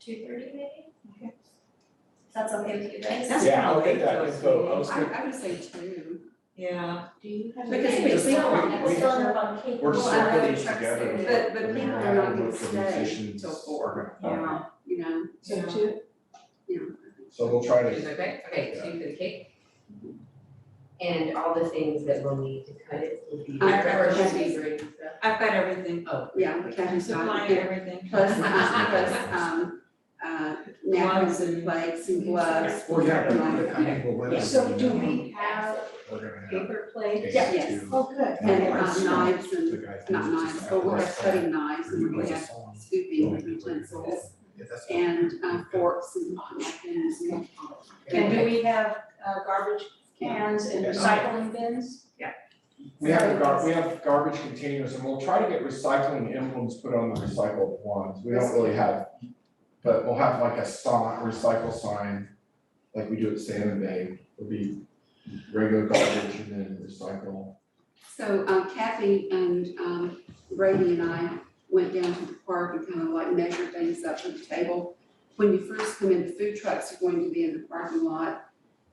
two thirty maybe? Okay. If That's okay with you guys? That's Yeah, I'll probably get that close. info, I was I, gonna, I would say two. Yeah, Do you have? Because Yeah, we- we're still on, we- we're we- still on the wrong cake. we're Well, circling I would these trust together. you. But, but And people then are not add gonna with the stay musicians. till four, Okay. yeah, you know, Yeah. So two, you so we'll try Is to, that okay? Okay, two for the cake. And all the things that we'll need to cut it will be. I remember Or should she- we bring stuff? I've got everything, Oh. know, yeah, Kathy's not supplying here. everything. Plus, plus, um, uh, napkins and plates and gloves. we're gonna, Yeah. I think we'll win this, So do you know, we have We're gonna paper have plates? case Yeah, yes. two, Oh, good. Yeah. And um, knives the and, guy who's not just knives, at but we're the gonna cutting knives restaurant, and we're he gonna was have a song. scooping utensils Yeah, that's- and uh, forks and napkins and. And do we have uh, garbage cans and Yes. recycling bins? We have gar, we have garbage containers and we'll try to get recycling emblems put on the recycled ones, we don't really have. But we'll have like a sign, recycle sign, like we do at Salmon Bay, it'll be regular garbage and then recycle. So um, Kathy and um, Brady and I went down to the park and kind of like measured things up at the table. When you first come in, the food trucks are going to be in the parking lot.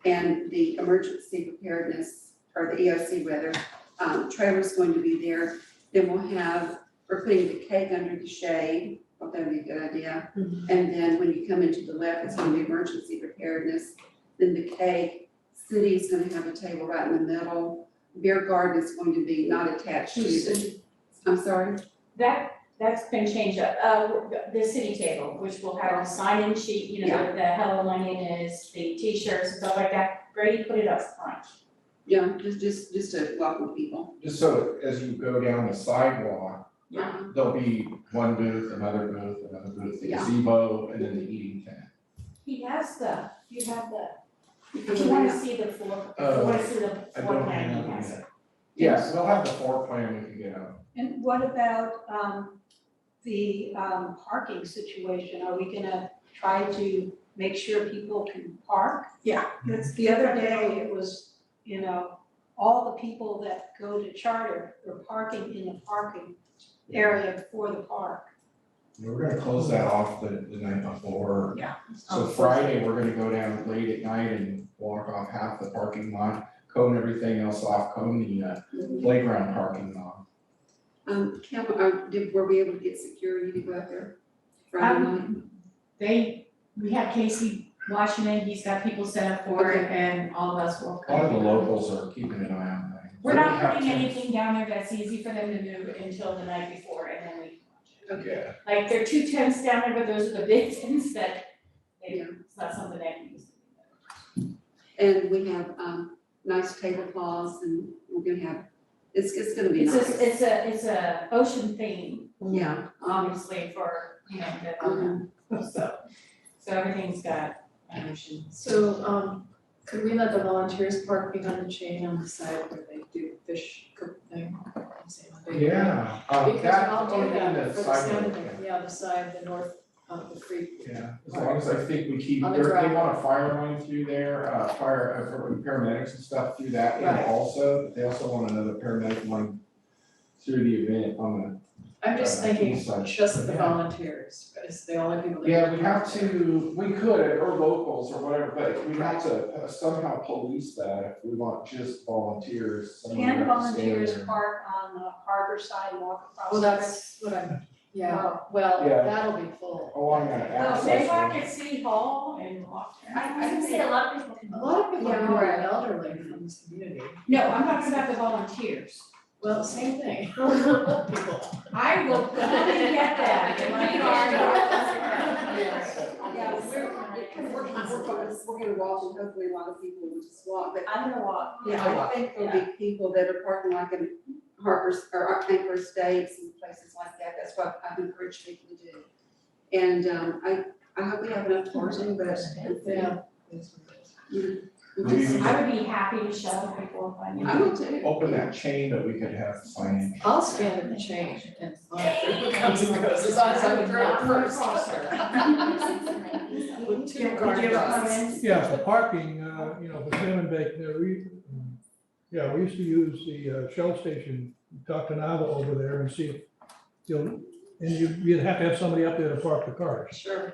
And the emergency preparedness, or the EOC rather, um, trailer's going to be there. Then we'll have, we're putting the cake under the shade, thought that'd be a good idea. And then when you come into the left, it's going to be emergency preparedness. Then the cake, city's gonna have a table right in the middle beer garden is going to be not attached to the, I'm sorry, That, that's been changed up, uh, the city table, which will have a sign-in sheet, you know, Yeah. with the hello, my name is, the t-shirts and stuff like that, Brady put it up front. yeah, just, just, just to welcome people. Just so as you go down the sidewalk, Yeah. there'll be one booth, another booth, another booth, the Yeah. gazebo, and then the eating tent. He has the, you have the, You can if go you wanna out. see the floor, if Uh, you wanna see the I floor don't plan, have he has it. that. Yes, we'll have the floor plan we can get out. And what about um the um parking situation? Are we gonna try to make sure people can park? That's The other day, it was, you know, all the people that go to charter were parking in the parking area for the park. We're gonna close that off the, the night before. Yeah. So Friday, we're gonna go down late at night and walk off half the parking lot, cone everything else off, cone the uh, playground parking lot. Um, Kim, uh, did, were we able to get security to go out there Friday Um, night? Um, They, we have Casey Washington, he's got people set up for it, and all of us will A lot of the locals are keeping an eye on that. We're not putting any. anything down there that's easy for them to move until the night before and then we can watch Yeah, it. Like, there are two tents down there, but those are the big tents that, they, Yeah. it's not something they can use. And we have, um, nice tablecloths and we're gonna have, it's, it's gonna be It's nice. a, it's a, it's a ocean theme, Yeah, obviously, for, you know, the, um, so, so everything's got an ocean. So, um, could we let the volunteers park behind the chain on the side where they do fish cook thing? yeah, um, Because that, I'll do only in that the for the sidewalk, salmon, yeah. yeah, the side, the north of the creek. yeah, as long as I think we keep, On the there, they gravel. want a fire line through there, uh, fire, uh, paramedics and stuff through that, and Right. also, they also want another paramedic line through the event on the I'm just Uh, thinking, east side. just the Yeah. volunteers, it's the only people that. Yeah, we have to, we could, or locals or whatever, but we have to uh, somehow police that if we want just volunteers, someone Can would have to stay volunteers there. park on the harbor sidewalk across? Well, the- that's what I'm, yeah, well, Yeah. that'll be full. Along that Well, access. Oh, they road. walk at City Hall and walk there. I- I I would say a lot of people can. A lot of people Yeah. who are elderly from this community, No, I'm talking about the volunteers. well, same thing, old people. I will gladly get that. You Like, are- yeah, we're, we're, we're gonna, we're gonna walk and hopefully a lot of people will just walk, but I'm gonna walk. Yeah, I think there'll be people that are parking like in Harper's, or Anchor Estates and places like that, that's what I've encouraged people to do. And, um, I, I hope we have enough parking, but. Yeah. Maybe we I would be happy to shuttle people if I knew. I will too. Open that chain that we could have signage. I'll stand in the change and monitor who comes and goes, as long as I'm in front first. With two guard dogs. Yeah, for parking, uh, you know, for Salmon Bank, there we, yeah, we used to use the uh, Shell station, talk to Nava over there and see if, you know, and you, you'd have to have somebody up there to park the cars. Sure.